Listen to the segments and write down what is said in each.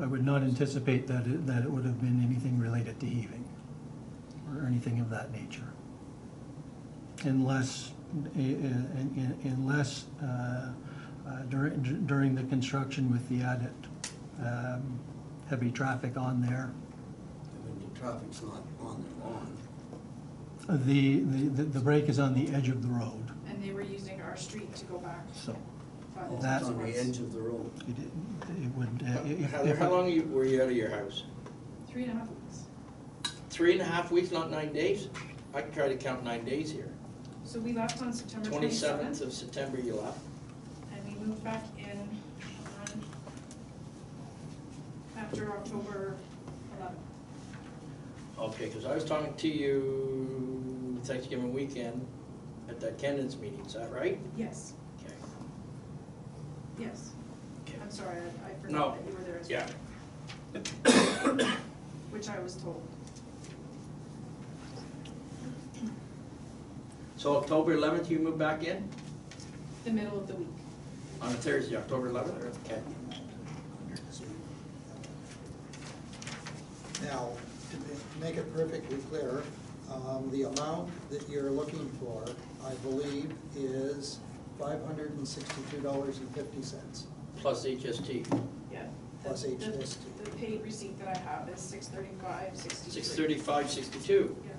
I would not anticipate that it, that it would have been anything related to heaving or anything of that nature. Unless, eh, eh, un- un- unless uh, uh, during, during the construction with the added um, heavy traffic on there, When the traffic's not on their lawn. the, the, the break is on the edge of the road, and they were using our street to go back. so but Oh, That- It's on the towards- edge of the road. it, it would. eh, if- Heather, if I- how long you- were you out of your house? Three and a half weeks. Three and a half weeks, not nine days? I can try to count nine days here. So we left on September Twenty-seventh twenty-seventh, of September you left. and we moved back in on, after October eleventh. Okay, because I was talking to you Thanksgiving weekend at that Kenan's meeting, is that right? Yes, Okay. yes. Okay. I'm sorry, I I No. forgot that you were there as well. Yeah. Which I was told. So October eleventh, you moved back in? The middle of the week. On a Thursday, October eleventh? Okay. Now, to ma- make it perfectly clear, um, the amount that you're looking for, I believe, is five hundred and sixty-two dollars and fifty cents. Plus HST, Yeah. Plus The- the- HST. The paid receipt that I have is six thirty-five, sixty-three. six thirty-five, sixty-two. Yeah,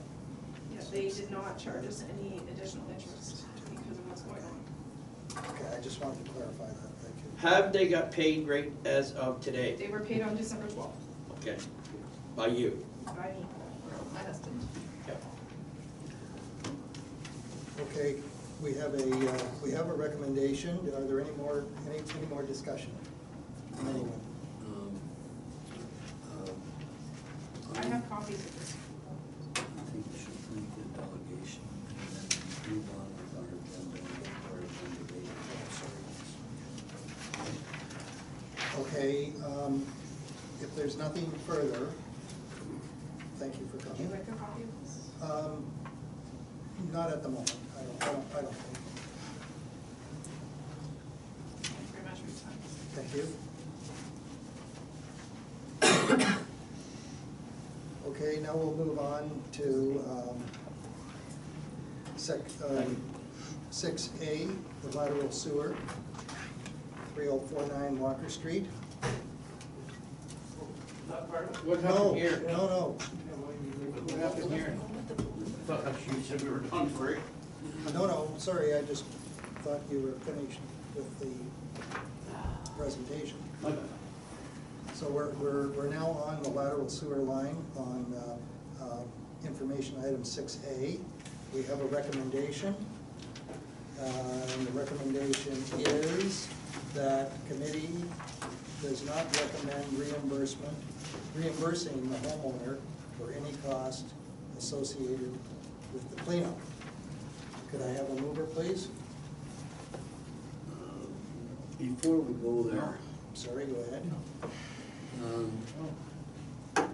yeah, they did not charge us any additional interest because of what's going on. Okay, I just wanted to clarify that, thank you. Have they got paid rate as of today? They were paid on December twelfth Okay, by you? by me, my husband. Okay. Okay, we have a, uh, we have a recommendation, are there any more, any, any more discussion? Anyone? Um, um, I have copies of this. I think we should leave the delegation and then move on with our agenda and get our agenda later. Okay, um, if there's nothing further, thank you for Would you coming. like a copy of this? Um, Not at the moment, I don't, I don't, I don't think. Thank you very much for your time. Thank you. Okay, now we'll move on to um, sec, um, six A, the lateral sewer, three oh four nine Walker Street. What No, happened here? No, no, What happened here? Thought you said we were done for it. no, no, sorry, I just thought you were finished with the presentation. So we're, we're, we're now on the lateral sewer line on, uh, uh, information item six A. We have a recommendation. Uh, and the recommendation is that committee does not recommend reimbursement, reimbursing the homeowner for any cost associated with the cleanup. Could I have a mover, please? Um, Before we go there, Sorry, go ahead. um, oh.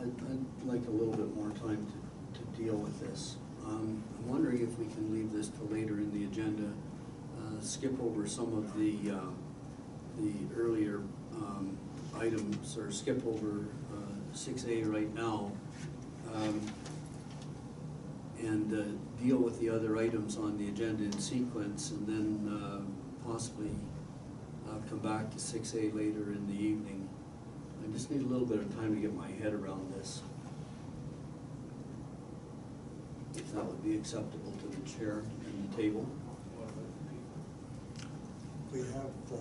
I'd, I'd like a little bit more time to, to deal with this. Um, I'm wondering if we can leave this till later in the agenda, uh, skip over some of the, uh, the earlier, um, items, or skip over, uh, six A right now. Um, and uh, deal with the other items on the agenda in sequence, and then uh, possibly uh, come back to six A later in the evening. I just need a little bit of time to get my head around this. If that would be acceptable to the chair and the table. We have, uh,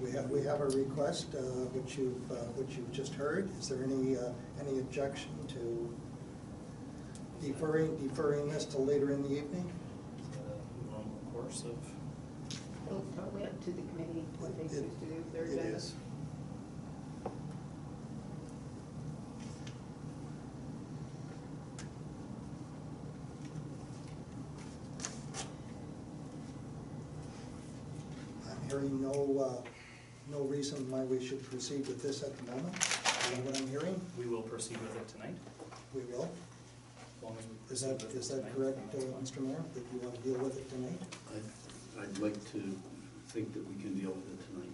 we have, we have a request, uh, which you've, uh, which you've just heard. Is there any, uh, any objection to deferring, deferring this till later in the evening? uh, normal course of. Well, it's totally up to the committee what they choose to do with their It agenda. is. I'm hearing no, uh, no reason why we should proceed with this at the moment. Is that what I'm hearing? We will proceed with it tonight, We will. as long as we Is proceed that, with it is that tonight. correct, uh, Mr. Mayor, that you want to deal with it tonight? I- I'd like to think that we can deal with it tonight.